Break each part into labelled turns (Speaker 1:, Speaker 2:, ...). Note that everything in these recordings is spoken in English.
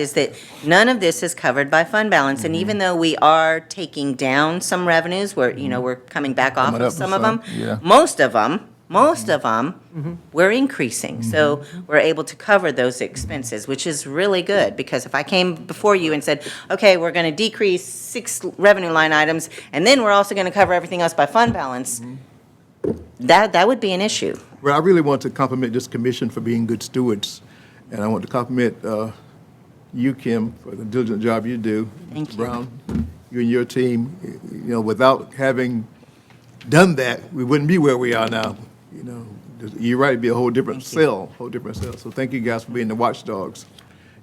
Speaker 1: is that none of this is covered by fund balance, and
Speaker 2: Mm-hmm.
Speaker 1: even though we are taking down some revenues, we're, you know, we're coming back off
Speaker 2: Mm-hmm. Coming
Speaker 1: of
Speaker 2: up
Speaker 1: some
Speaker 2: with
Speaker 1: of them.
Speaker 2: some, yeah. Mm-hmm.
Speaker 1: Most of them, most of them, we're increasing, so we're able to cover those expenses, which is really good, because if I came before you and said, okay, we're gonna decrease six revenue line items, and then we're also gonna cover everything else by fund balance,
Speaker 2: Mm-hmm.
Speaker 1: that, that would be an issue.
Speaker 2: Well, I really want to compliment this commission for being good stewards, and I want to compliment uh, you, Kim, for the diligent job you do.
Speaker 1: Thank
Speaker 2: Mr.
Speaker 1: you.
Speaker 2: Brown, you and your team, you know, without having done that, we wouldn't be where we are now, you know. You're right, it'd be a whole different cell, whole different cell. So thank you guys for being the watchdogs.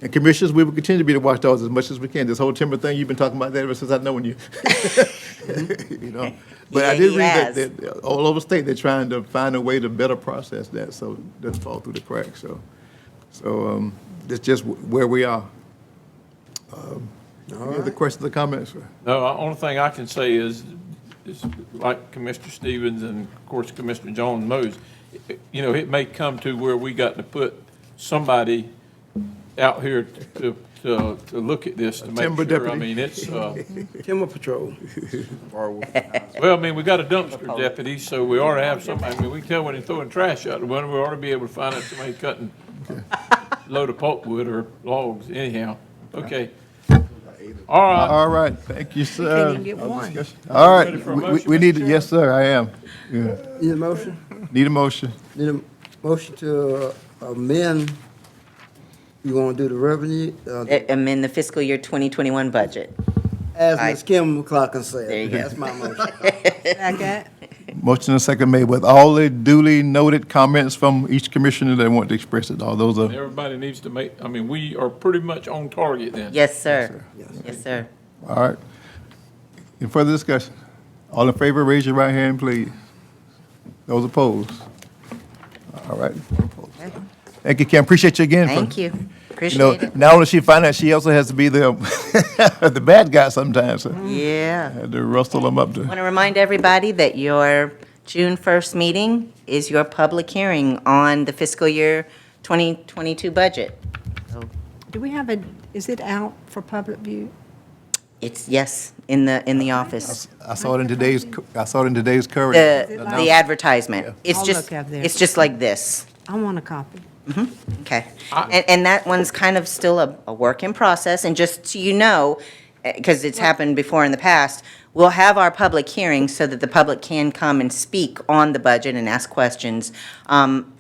Speaker 2: And commissioners, we will continue to be the watchdogs as much as we can. This whole timber thing, you've been talking about that ever since I've known you. You know, but I
Speaker 1: Yeah,
Speaker 2: did
Speaker 1: he
Speaker 2: read that,
Speaker 1: has.
Speaker 2: that all over state, they're trying to find a way to better process that, so it doesn't fall through the cracks, so. So, um, that's just wh- where we are. Um, Any other questions or comments? sir?
Speaker 3: No, the only thing I can say is, is like Commissioner Stevens and of course Commissioner Jones knows, it- you know, it may come to where we got to put somebody out here to, to, to look at this to make
Speaker 2: timber
Speaker 3: sure.
Speaker 2: deputy.
Speaker 3: I mean, it's, uh,
Speaker 4: Timber Patrol.
Speaker 3: well, I mean, we got a dumpster deputy, so we ought to have somebody, I mean, we can tell when they're throwing trash out, when we ought to be able to find out somebody cutting a load of pulpwood or logs anyhow. Okay. All right.
Speaker 2: All right, thank you, sir. All
Speaker 3: Ready
Speaker 2: right,
Speaker 3: for a
Speaker 2: we- we,
Speaker 3: motion,
Speaker 2: we
Speaker 3: Mr.
Speaker 2: need, to- yes, sir, I am. Yeah.
Speaker 4: Need a motion?
Speaker 2: Need a motion?
Speaker 4: Need a motion to uh, amend, you want to do the revenue? uh,
Speaker 1: A- Amend eh, the fiscal year 2021 budget.
Speaker 4: As Ms. Kim McLaughlin said.
Speaker 1: There you go.
Speaker 4: That's my motion.
Speaker 5: Second.
Speaker 2: Motion and second made with all the duly noted comments from each commissioner that want to express it. All those are,
Speaker 3: Everybody needs to make, I mean, we are pretty much on target then.
Speaker 1: Yes, sir. Yes, sir.
Speaker 2: all right. Any further discussion? All in favor, raise your right hand, please. Those opposed? All right. Thank you, Kim. Appreciate you again. for-
Speaker 1: Thank you.
Speaker 2: You know,
Speaker 1: Appreciate it.
Speaker 2: not only she find out, she also has to be the, the bad guy sometimes.
Speaker 1: Mm-hmm.
Speaker 2: so
Speaker 1: Yeah.
Speaker 2: Had to rustle them up
Speaker 1: Want
Speaker 2: to,
Speaker 1: to remind everybody that your June 1st meeting is your public hearing on the fiscal year 2022 budget.
Speaker 5: Do we have a, is it out for public view?
Speaker 1: It's, yes, in the, in the office.
Speaker 2: I saw it in today's, I saw it in today's current.
Speaker 1: The,
Speaker 5: like-
Speaker 1: the advertisement. It's
Speaker 5: I'll
Speaker 1: just,
Speaker 5: look up there.
Speaker 1: it's just like this.
Speaker 5: I want a copy.
Speaker 1: Okay. And, and that one's kind of still a, a work in process, and just so you know, because it's happened before in the past, we'll have our public hearing so that the public can come and speak on the budget and ask questions. Um,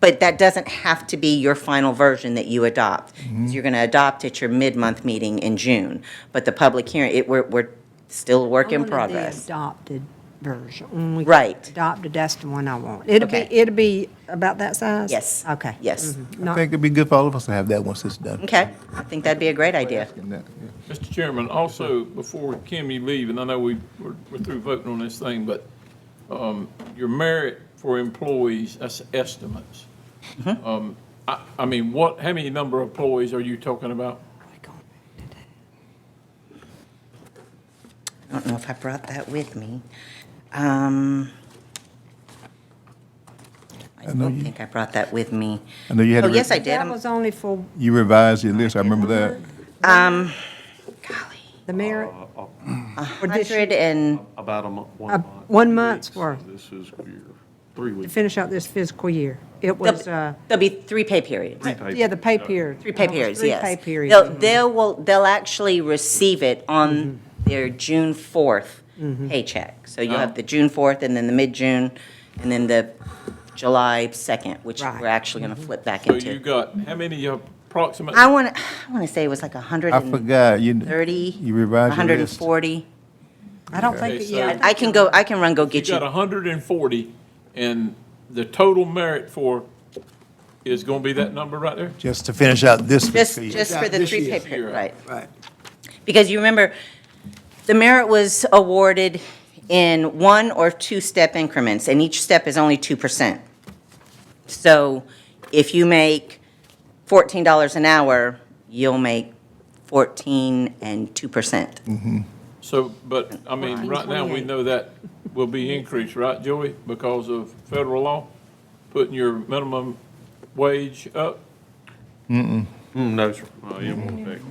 Speaker 1: But that doesn't have to be your final version that you adopt. You're going to adopt at your mid-month meeting in June, but the public hearing, it, we're, we're still a work in
Speaker 5: I wanted the
Speaker 1: progress.
Speaker 5: Adopted version. When we get
Speaker 1: Right.
Speaker 5: Adopted, that's the one I want. It'll be,
Speaker 1: Okay.
Speaker 5: it'll be about that size?
Speaker 1: Yes.
Speaker 5: Okay.
Speaker 1: Yes.
Speaker 5: Mhm.
Speaker 2: I
Speaker 5: Not,
Speaker 2: think it'd be good for all of us to have that once it's done.
Speaker 1: Okay, I think that'd be a great idea.
Speaker 3: Mr. Chairman, also, before Kim, you leave, and I know we, we're we're through voting on this thing, but um, your merit for employees, that's estimates.
Speaker 1: Mm-hmm.
Speaker 3: Um, I, I mean, what, how many number of employees are you talking about?
Speaker 1: I don't know if I brought that with me. Um, I
Speaker 2: know
Speaker 1: don't
Speaker 2: you-
Speaker 1: think I brought that with me.
Speaker 2: I know you had,
Speaker 1: Oh,
Speaker 2: to re-
Speaker 1: yes, I did.
Speaker 5: that
Speaker 1: I'm-
Speaker 5: was only for
Speaker 2: you revised your list, I remember that.
Speaker 5: the
Speaker 3: Uh,
Speaker 5: merit, for this year,
Speaker 1: Hundred and,
Speaker 6: About a month, one
Speaker 5: Uh,
Speaker 6: month.
Speaker 5: one
Speaker 6: three
Speaker 5: month's
Speaker 6: weeks.
Speaker 5: worth.
Speaker 6: This is weird. Three
Speaker 5: to
Speaker 6: weeks.
Speaker 5: finish out this fiscal year. It was, uh,
Speaker 1: there'll there'll be three pay periods.
Speaker 6: Paper.
Speaker 5: yeah, the pay period.
Speaker 1: Three pay
Speaker 5: It was
Speaker 1: periods,
Speaker 5: three
Speaker 1: yes.
Speaker 5: pay periods.
Speaker 1: They'll, they'll, will- they'll actually receive it on
Speaker 5: Mm-hmm.
Speaker 1: their June 4th paycheck. So
Speaker 5: Oh.
Speaker 1: you'll have the June 4th and then the mid-June and then the July 2nd, which
Speaker 5: Right. Mm-hmm.
Speaker 1: we're actually going to flip back
Speaker 3: So you
Speaker 1: into.
Speaker 3: got, how many uh, approximate?
Speaker 1: I want to, I want to say it was like a 100
Speaker 2: I forgot, you,
Speaker 1: 30,
Speaker 2: you revised your list.
Speaker 1: 140.
Speaker 5: I don't think,
Speaker 3: Okay,
Speaker 5: that- yeah,
Speaker 3: so-
Speaker 1: I can go, I can run, go
Speaker 3: You
Speaker 1: get
Speaker 3: got
Speaker 1: you.
Speaker 3: 140, and the total merit for is going to be that number right there?
Speaker 2: Just to finish out this
Speaker 1: Just,
Speaker 2: fiscal year.
Speaker 1: just for the
Speaker 4: This
Speaker 1: three
Speaker 4: year.
Speaker 1: paper, right.
Speaker 4: Right.
Speaker 1: Because you remember, the merit was awarded in one or two-step increments, and each step is only 2%. So if you make $14 an hour, you'll make 14 and 2%.
Speaker 3: So, but, I mean, right now, we know that will be increased, right, Joey? Because of federal law, putting your minimum wage up?
Speaker 6: Mm, No, sir. No, it won't affect.